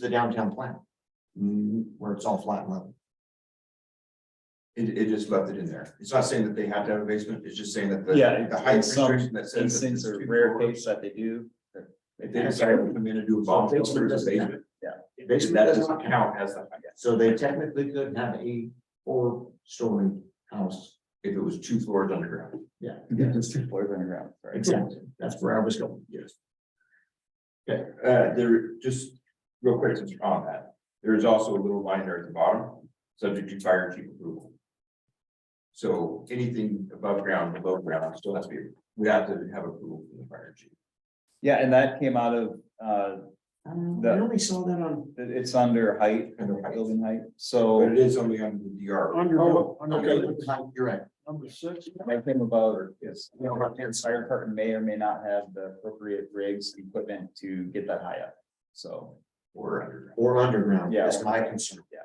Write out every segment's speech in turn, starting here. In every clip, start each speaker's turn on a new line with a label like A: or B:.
A: the downtown plan. mm, Where it's all flat and level.
B: It, it just left it in there. It's not saying that they have to have a basement, it's just saying that the.
C: Yeah,
B: The height
C: in some
B: restriction that says.
C: These
B: that
C: things
B: it's
C: are
B: two
C: rare
B: floors.
C: cases that they do.
B: If they decide to come in and do a bomb,
A: Basement
B: filter as a
A: doesn't count.
B: basement,
A: Basically,
B: that does not count as the, height.
A: So they technically could have a four-story house.
B: if it was two floors underground.
A: Yeah.
C: It's two floors underground, right?
A: Exactly. That's where I was going.
B: Yes. Okay, uh, there, just real quick, since you're on that, there is also a little line there at the bottom, subject to fire chief approval. So anything above ground, below ground, still has to be, we have to have approval from the fire chief.
C: Yeah, and that came out of, uh,
A: Um, I
C: That-
A: only saw that on.
C: it- it's under height,
B: Under height.
C: building height,
B: But
C: so
B: it is only under the DR.
A: Oh,
B: under-
A: okay, you're right.
D: Number six,
C: my thing about is, you
A: Yeah,
C: know,
A: right there, it's
C: fire department may or may not have the appropriate rigs, equipment to get that high up. So,
B: Or underground.
A: Or underground,
C: Yeah.
A: that's my concern.
C: yeah,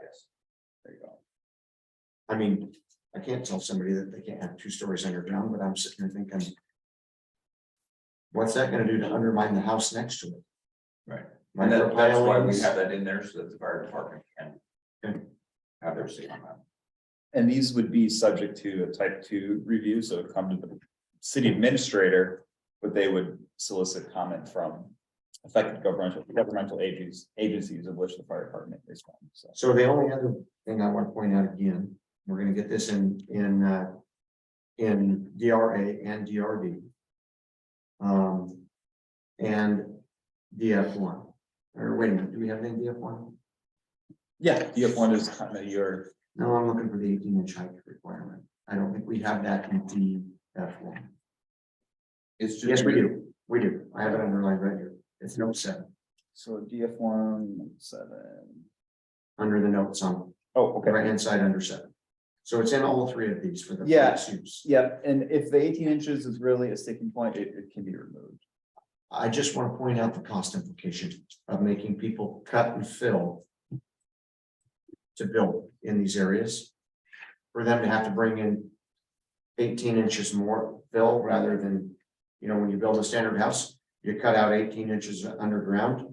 C: there you go.
A: I mean, I can't tell somebody that they can't have two stories underground, but I'm sitting there thinking. What's that gonna do to undermine the house next to it?
B: Right.
A: My
B: And that, that's why we
A: pilings.
B: have that in there, so that the fire department can.
A: Okay.
B: Have their say on that.
C: And these would be subject to a type two review, so it'd come to the city administrator, but they would solicit comment from affected governmental, governmental agencies, agencies of which the fire department is one, so.
A: So the only other thing I want to point out again, we're gonna get this in, in, uh, in DRA and DRD. Um, and DF one, or wait a minute, do we have any DF one?
C: Yeah, you have one is kind of your,
A: No, I'm looking for the eighteen inch height requirement. I don't think we have that in DF one.
B: It's just.
A: Yes, we do. We do. I have it underlined right here. It's note seven,
C: so DF one, seven.
A: under the notes on
C: Oh,
A: the
C: okay.
A: right hand side under seven. So it's in all three of these for the.
C: Yeah.
A: flex use.
C: Yeah, and if the eighteen inches is really a sticking point, it, it can be removed.
A: I just want to point out the cost implication of making people cut and fill. To build in these areas. For them to have to bring in. Eighteen inches more fill rather than, you know, when you build a standard house, you cut out eighteen inches underground.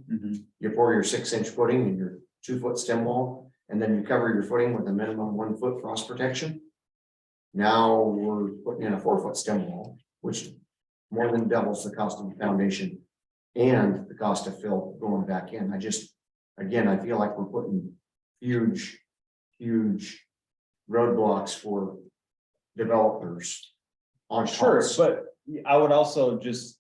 A: you pour your six inch footing and your two foot stem wall, and then you cover your footing with a minimum one foot frost protection. Now we're putting in a four foot stem wall, which more than doubles the cost of the foundation and the cost of fill going back in. I just, again, I feel like we're putting huge, huge roadblocks for developers on
C: Sure,
A: parts.
C: but I would also just.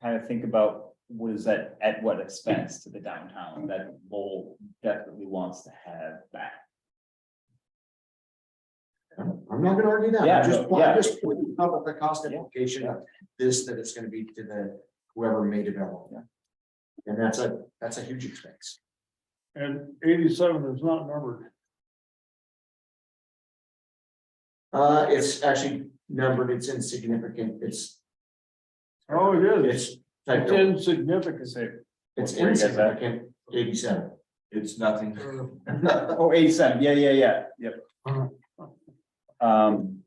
C: Kind of think about what is that, at what expense to the downtown that Lowell definitely wants to have back.
A: I'm not gonna argue that.
C: Yeah,
A: I'm just,
C: no, yeah.
A: I'm just pointing out what the cost implication of this, that it's gonna be to the whoever may develop. And that's a, that's a huge expense.
D: and eighty-seven is not numbered.
A: Uh, it's actually numbered, it's insignificant, it's,
D: Oh, it is.
A: it's,
D: It's
A: typed-
D: insignificant.
A: it's
C: Where you guys at?
A: insignificant, eighty-seven. Mm.
B: It's nothing.
C: Oh, 87. yeah, yeah, yeah, yep.
B: Uh-huh.
C: Um,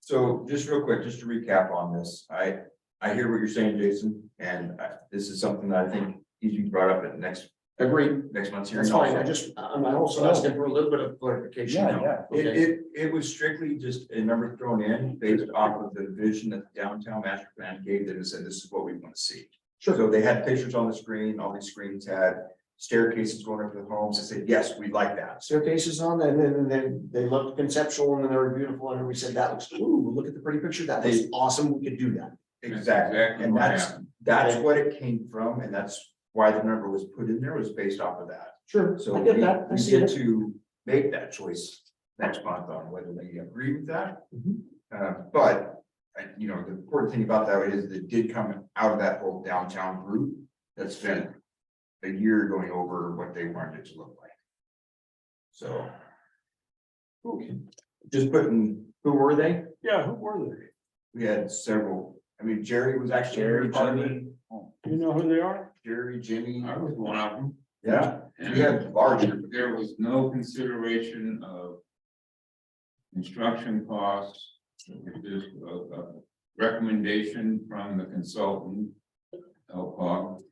B: So just real quick, just to recap on this, I, I hear what you're saying, Jason, and I- this is something that I think needs to be brought up at next,
A: Agreed,
B: next month's hearing.
A: that's fine, I
B: also.
A: just, I'm also asking for a little bit of clarification.
C: yeah,
A: now.
C: yeah,
B: It,
A: Okay.
B: it, it was strictly just a number thrown in based off of the vision that the downtown master plan gave them and said, this is what we want to see.
A: Sure.
B: So they had pictures on the screen, all these screens had staircases going up to the homes, they said, yes, we'd like that.
A: staircases on, and then, and then they looked conceptual, and then they were beautiful, and we said, that looks, ooh, look at the pretty picture, that looks
B: They-
A: awesome, we could do that.
B: Exactly, and
A: what
B: that's, that's what it came from, and that's why the number was put in there, was based off of that.
A: Sure,
B: So
A: I
B: we,
A: get that, I
B: we
A: see
B: get
A: it.
B: to make that choice next month on whether we agree with that.
A: Mhm.
B: Uh, but, uh, you know, the important thing about that is that it did come out of that whole downtown group that spent a year going over what they wanted it to look like. So. Just putting,
A: Who were they?
D: Yeah, who were
B: we had several, I mean, Jerry was actually.
C: Jerry,
B: part of it.
C: Jimmy.
D: they? You know who they are?
B: Jerry, Jimmy,
E: I was one of them.
B: yeah,
E: and
B: we had larger.
E: There was no consideration of construction costs. It was just a, a recommendation from the consultant, LPOG,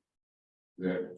E: that